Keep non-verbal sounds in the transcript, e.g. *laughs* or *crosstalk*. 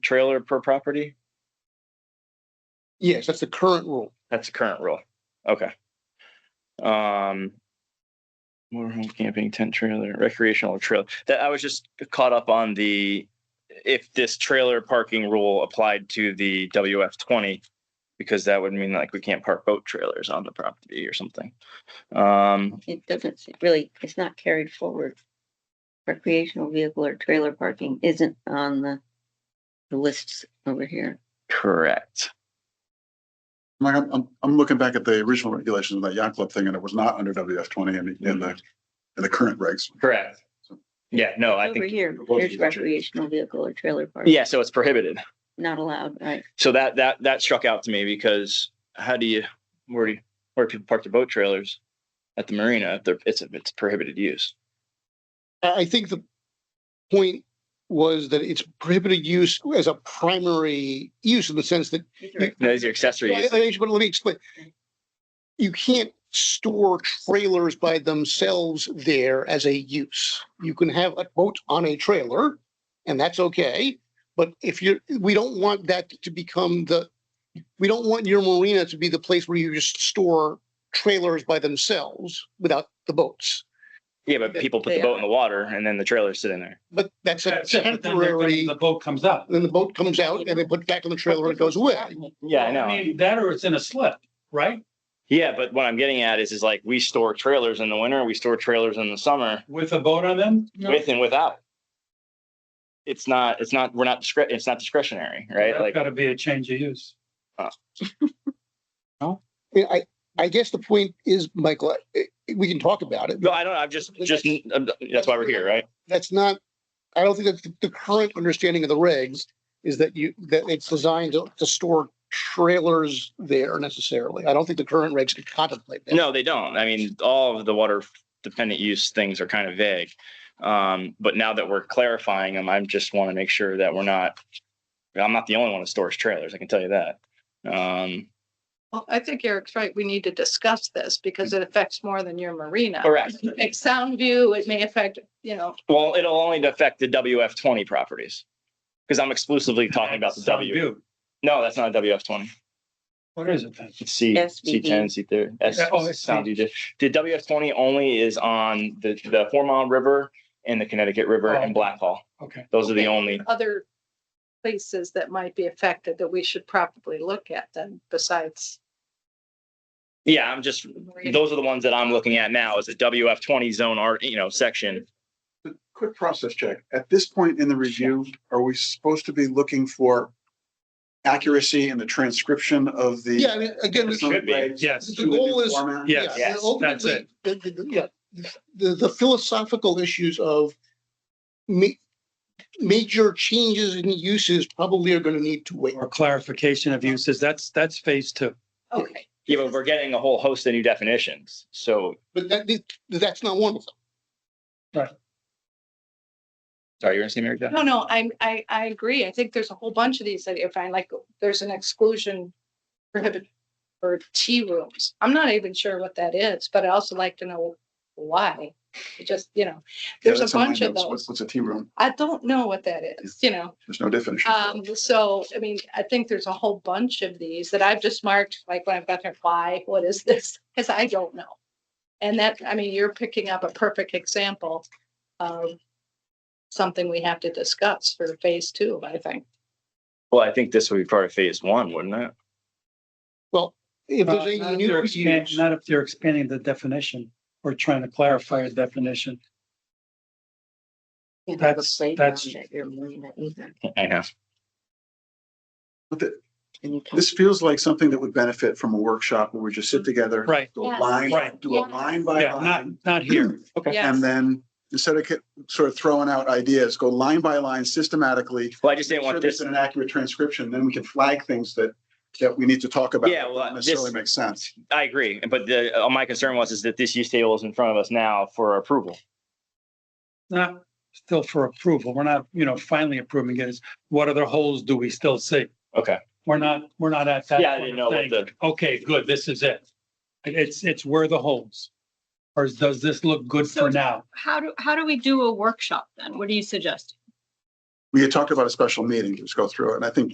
trailer per property? Yes, that's the current rule. That's the current rule. Okay. Um, motorhome camping tent trailer, recreational trailer. That I was just caught up on the if this trailer parking rule applied to the WF twenty, because that would mean like we can't park boat trailers on the property or something. Um, It doesn't s- really, it's not carried forward. Recreational vehicle or trailer parking isn't on the, the lists over here. correct. Mike, I'm, I'm, I'm looking back at the original regulations of that yacht club thing and it was not under WF twenty and in the, in the current regs. Correct. Yeah, no, I Over think, here, Proposed there's statute. recreational vehicle or trailer parking. yeah, so it's prohibited. Not allowed, right? so that that that struck out to me because how do you where do you, where do people park their boat trailers at the marina if they're it's if it's prohibited use? I, I think the point was that it's prohibited use as a primary use in the sense that, These You- are No, these are accessory I- uses. I- but let me explain. You can't store trailers by themselves there as a use. You can have a boat on a trailer and that's okay. But if you're, we don't want that to become the, we don't want your marina to be the place where you just store trailers by themselves without the boats. Yeah, but people put the They boat in the water and then the trailers sit in there. But that's a That's it, but then there- temporary, The boat comes up. then the boat comes out and they put it back on the trailer and it goes away. Yeah, I I know. mean, that or it's in a slip, right? Yeah, but what I'm getting at is is like we store trailers in the winter, we store trailers in the summer, With a boat on them? with and without. It's not. It's not. We're not. Discre- it's not discretionary, right? That's Like gotta be a change of use. Yeah, I, I guess the point is, Michael, I- we can talk about it. no, I don't. know. I'm just. Just. That's why we're here, right? That's not, I don't think that's the- the current understanding of the regs is that you, that it's designed to, to store trailers there necessarily. I don't think the current regs could contemplate that. No, they don't. I mean, all of the water dependent use things are kind of vague. Um, but now that we're clarifying them, I just want to make sure that we're not, I'm not the only one that stores trailers. I can tell you that. Um, Well, I think Eric's right. We need to discuss this because it affects more than your marina. correct. Like Sound View, it may affect, you know, Well, it'll only affect the WF twenty properties. Cause I'm exclusively talking about the Some W. view. No, that's not a WF twenty. What is it then? It's C, C SVD. ten, C thirty. Yeah, oh, it's Sound you did. The WF twenty only is on the, the Hormone River and the Connecticut River and Oh. Blackhall. Okay. Those are the only other places that might be affected that we should probably look at then besides. Yeah, I'm just, marina. those are the ones that I'm looking at now is a WF twenty zone art, you know, section. Quick process check. At this point in the review, are we supposed to be looking for accuracy in the transcription of the? Yeah, I mean, again, It should be. Yes, The goal is- Format? Yeah. Yeah, yes, that's ultimately, the- the- the- Yeah, the, the philosophical issues of ma- major changes in uses probably are gonna need to wait. or clarification of uses, that's, that's phase two. Okay, Yeah, but we're getting a whole host of new definitions. So, But that, that's not one of them. sorry, you're gonna say Mary Jo? no, no, I'm, I, I agree. I think there's a whole bunch of these that you find, like, there's an exclusion prohibited for tea rooms. I'm not even sure what that is, but I also like to know why. It just, you know, Yeah, there's a that's in my bunch of notes. What's those. what's a tea room? I don't know what that is, you know? There's no definition. for Um, it. so, I mean, I think there's a whole bunch of these that I've just marked, like when I've got there, why, what is this? *laughs* Cause I don't know. And that, I mean, you're picking up a perfect example of something we have to discuss for phase two, I think. Well, I think this would be part of phase one, wouldn't it? If Uh, there's any Not if new they're expand- use, not if they're expanding the definition or trying to clarify a definition. You have a That's- playground that's- at your marina either. I know. But the- And you can't This feels like something that would benefit from a workshop where we just sit together. Right, Do a Yes. line, Right. do a Yes. line by yeah, not, line. not here. Okay. Yes. And then instead of ki- sort of throwing out ideas, go line by line systematically. Well, I just didn't Sure, want there's this. an accurate transcription, then we can flag things that, that we need to talk about. Yeah, well, Don't Necessarily this- makes sense. I agree. But the, uh, my concern was is that this use table is in front of us now for approval. not still for approval. We're not, you know, finally approving it. It's What other holes do we still see? Okay. We're not, we're not at that. Yeah, I point didn't of know what saying, Okay, good, this is it. It's, it's where the holes. Or does this look good for So- now? How do, how do we do a workshop then? What do you suggest? we had talked about a special meeting, just go through it, and I think